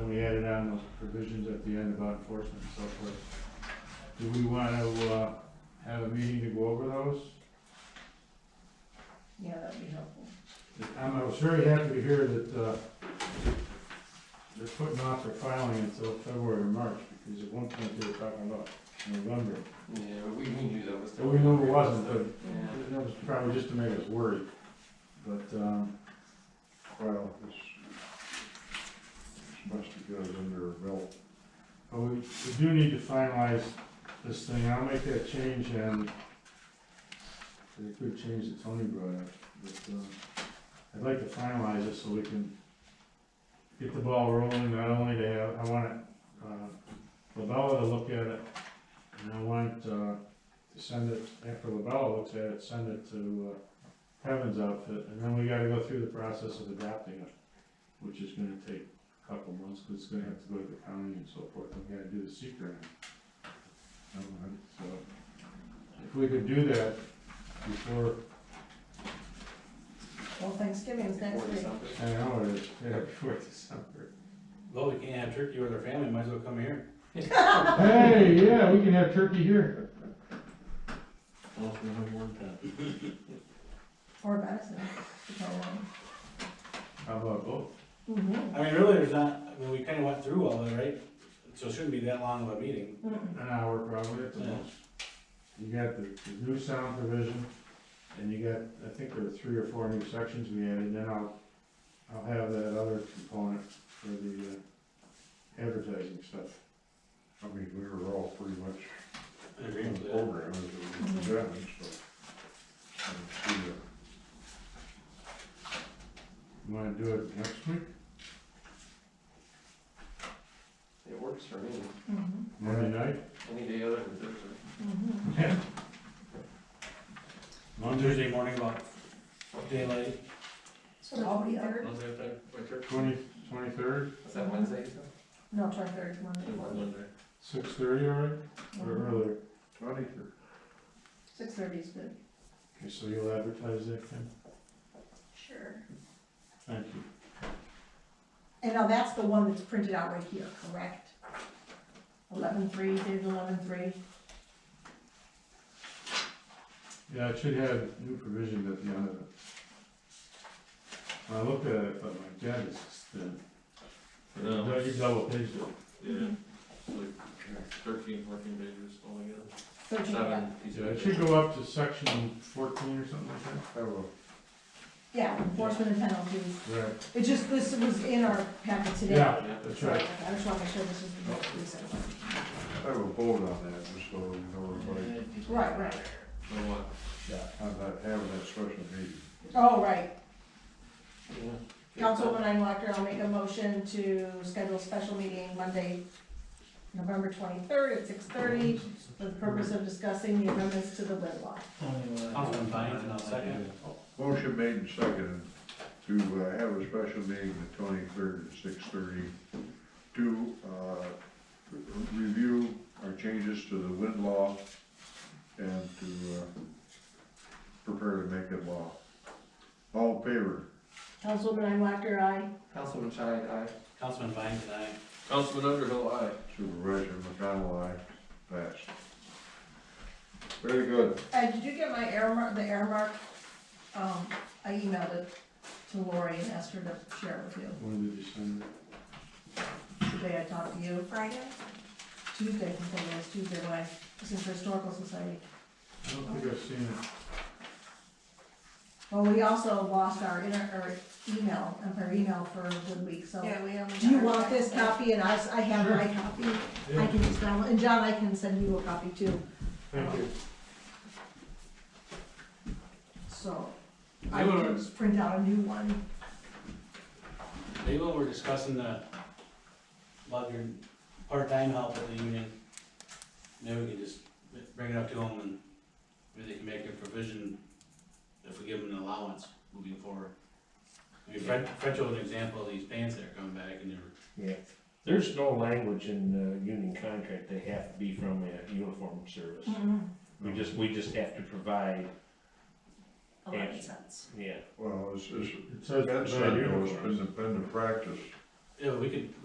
added on those provisions at the end about enforcement and so forth. Do we want to, uh, have a meeting to go over those? Yeah, that'd be helpful. I'm, I was very happy to hear that, uh, they're putting off their filing until February or March, because at one point they were talking about November. Yeah, we, we knew that was. So we knew it wasn't, but Yeah. That was probably just to make us worried, but, um, Well, it's, it's best to get it under our belt. but we, we do need to finalize this thing, I'll make that change and the good change that Tony brought up, but, um, I'd like to finalize it so we can get the ball rolling, not only to have, I want, uh, Lavella to look at it, and I want, uh, to send it, after Lavella looks at it, send it to, uh, Kevin's outfit, and then we gotta go through the process of adopting it, which is gonna take a couple months, cause it's gonna have to go to the county and so forth, and we gotta do the secret. Um, So, if we could do that before, Well, Thanksgiving's next Before week. December. I know, it is, yeah, before December. Though they can't have turkey or their family, might as well come here. Hey, yeah, we can have turkey here. Well, we have one time. Or Madison, depending How about both? on. I mean, really, there's not, I mean, we kinda went through all that, right? So it shouldn't be that long of a meeting. Mm-hmm. An hour probably at the Yeah. most. You got the, the new sound provision, and you got, I think there are three or four new sections we added, and then I'll, I'll have that other component for the uh, advertising stuff. I mean, we were all pretty much I agree in with the that. program as it was done, so. I don't see a- You wanna do it next week? It works for me, Mm-hmm. Monday night? any day other than Thursday. Mm-hmm. On Tuesday morning about daylight. So I'll be there. Wednesday, what time? What church? Twenty, twenty-third, Is that Wednesday? you said? No, twenty-third, Monday. six thirty, all right, Mm-hmm. or earlier? Twenty for Six thirty is good. Okay, so you'll advertise that then? Sure. Thank you. And now that's the one that's printed out right here, correct? Eleven-three, dated eleven-three. Yeah, it should have new provisions at the end of it. When I looked at it, I thought, my God, it's thin. No. Don't you double page it? Yeah, Mm-hmm. like thirteen, fourteen pages altogether. Thirteen, yeah. Seven pieces. Yeah, it should go up to section fourteen or something like that. have a Yeah, enforcement and penalties. Right. It just, this was in our packet today. Yeah, Yeah. that's Sorry, right. I just wanna make sure this is the most recent one. Have a vote on that, just so we know everybody, Right, right. So what? on that, having that special meeting. Oh, right. Yeah. Councilwoman Einwalker, I'll make a motion to schedule a special meeting Monday, November twenty-third at six thirty for the purpose of discussing the amendments to the lid law. Councilman Bynes, and I'll second. Motion made and seconded to uh, have a special meeting the twenty-third at six thirty to, uh, re- review our changes to the wind law and to, uh, prepare to make it law. All in favor? Councilwoman Einwalker, aye. Councilman Shine, aye. Councilman Bynes and I. Councilman Underhill, aye. Supervisor McConnell, aye. Passed. Very good. Uh, did you get my earmark, the earmark? Um, I emailed it to Lori and asked her to share it with you. When did you send it? Today I talked to you. Friday? Tuesday, I think it was, Tuesday, when I, this is the Historical Society. I don't think I've seen it. Well, we also lost our inter, our email, our email for Wood Week, so. Yeah, we only. Do you got our want this check. copy, and I, s- I have my copy, I can just download, and John, I can send you a copy too, Thank you. so. I They were- can just print out a new one, Maybe when we're discussing the, about your part-time help at the union, maybe we can just bring it up to them and maybe they can make a provision if we give them an allowance moving forward. I mean, Fred, Fred showed an example of these pants that are coming back and they're, Yeah, there's no language in the union contract, they have to be from a uniform service. Mm-hmm. We just, we just have to provide, Eleven cents. yeah. Well, it's, it's, It says. that's, by been, uniforms. it's been the, been the practice yeah, we could,